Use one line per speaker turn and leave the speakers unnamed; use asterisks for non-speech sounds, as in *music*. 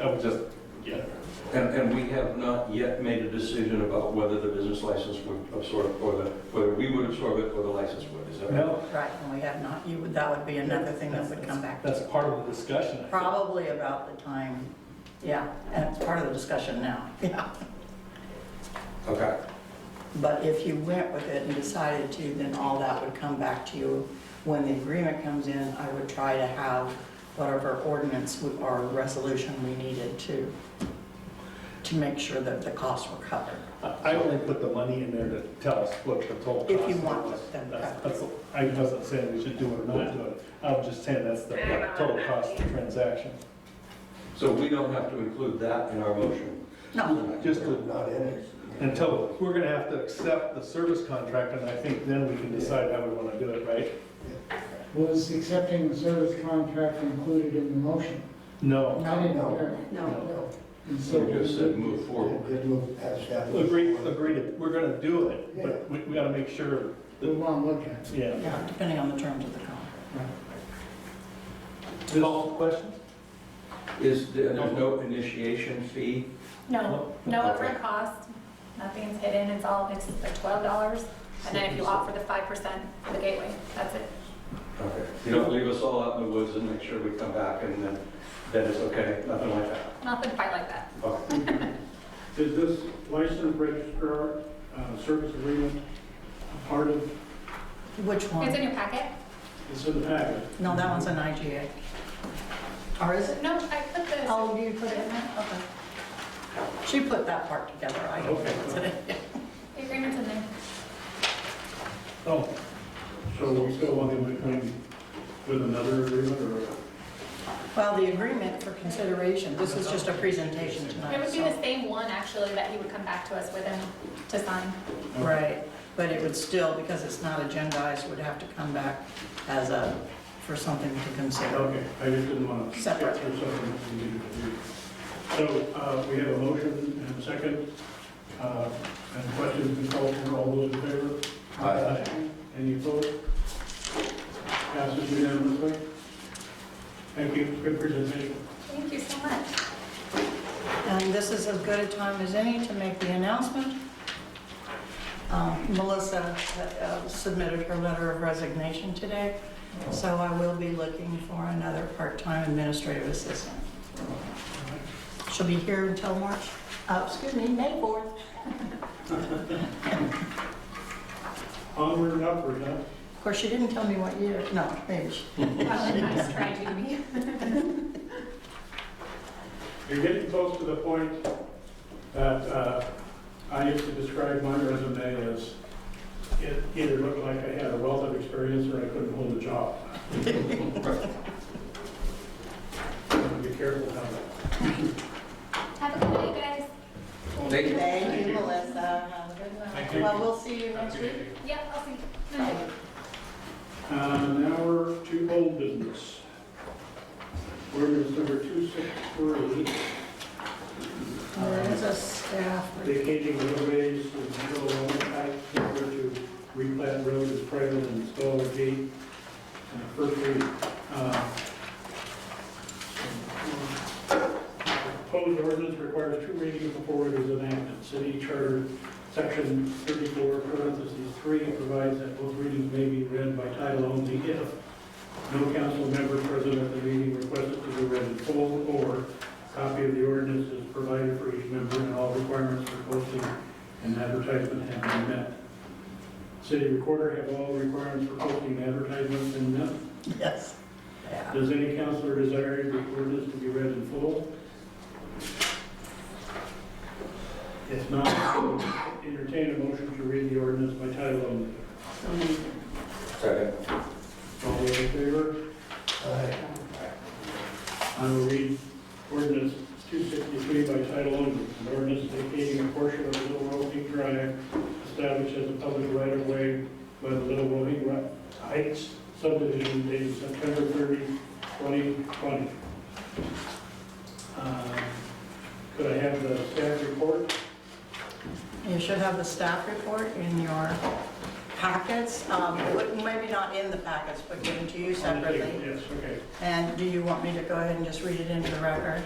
I would just, yeah.
And, and we have not yet made a decision about whether the business license would absorb, or the, whether we would absorb it or the license would, is that right?
No,
Right, and we have not, you would, that would be another thing that would come back.
that's part of the discussion. I think.
Probably about the time, yeah, and it's part of the discussion now, yeah.
Okay,
But if you went with it and decided to, then all that would come back to you. When the agreement comes in, I would try to have whatever ordinance we- or resolution we needed to, to make sure that the costs were covered.
I I only put the money in there to tell us what the total cost.
If you want
was.
them
That's-
covered.
that's- I wasn't saying we should do it or not do it. I'm just saying that's the total cost of the transaction.
so we don't have to include that in our motion?
No,
Just to- until, we're gonna have to accept the service contract, and I think then we can decide how we wanna do it, right?
Was accepting the service contract included in the motion?
No.
I
no,
didn't hear.
no.
And so
You just said move forward.
Did move past that.
Agree, agree, to- we're gonna do it, but we, we gotta make sure,
We want to look at it.
yeah.
Yeah, depending on the terms of the contract.
All questions?
Is, there there's no initiation fee?
No, no upfront cost, nothing's hidden, it's all, it's like twelve dollars, and then if you opt for the five percent for the gateway, that's it.
Okay, you don't leave us all out in the woods and make sure we come back and then, then it's okay, nothing like that?
Nothing quite like that.
Okay.
Is this license registrar uh, service agreement a part of,
Which one?
It's in your packet?
it's in the packet?
No, that one's an IGA. Or is it?
No, I put the,
Oh, you put it in there? Okay. She put that part together, I don't
Okay.
know.
the agreement's in there.
Oh, so we still want them to come with another agreement or?
Well, the agreement for consideration, this is just a presentation tonight.
It would be
so-
the same one, actually, that he would come back to us with and to sign.
Right, but it would still, because it's not agendized, would have to come back as a, for something to consider.
Okay, I just didn't want to.
Separate.
Or something that we needed to do. So uh, we have a motion and a second. uh, And questions been called for, all those in favor?
Aye.
Any opposed? Passes unanimously. Thank you, good presentation.
Thank you so
*laughs*
much.
And this is as good a time as any to make the announcement. Um, Melissa uh, submitted her letter of resignation today, so I will be looking for another part-time administrative assistant. She'll be here until March, uh, excuse me, May 4th.
Onward and upward, huh?
Of course, she didn't tell me what year, no, maybe she
Well, nice try, Jamie.
You're getting close to the point that uh, I used to describe my resume as it either looked like I had a wealth of experience or I couldn't hold a job. Be careful how that.
Have a good day, guys.
Thank you.
Thank you, Melissa. Have a good
Thank
one.
you.
Well, we'll see you next week.
Yeah, I'll see. you.
Uh, Now we're to old business. Ordinance number 263,
There's a staff. report.
vacating roadways with no loan type in order to replat road as private and install a gate. Uh, First reading. Uh, Proposed ordinance requires two readings before it is enacted. City Charter, Section 34, parentheses 3, provides that both readings may be read by title only if no council member present at the meeting requests it to be read in full, or copy of the ordinance is provided for each member, and all requirements for posting and advertisement have been met. City recorder have all requirements for posting advertisements been met.
Yes. Yeah.
Does any counselor desire the ordinance to be read in full? If not, entertain a motion to read the ordinance by title only.
Second.
All those in favor? I will read ordinance 263 by title only. An ordinance vacating a portion of Little Rohink Drive established as a public right-of-way by the Little Rohink Ri- Heights subdivision dated September 30, 2020. Uh, Could I have the staff report?
You should have the staff report in your packets. Um, it would- Maybe not in the packets, but given to you
On the table.
separately.
Yes, okay.
And do you want me to go ahead and just read it into the record?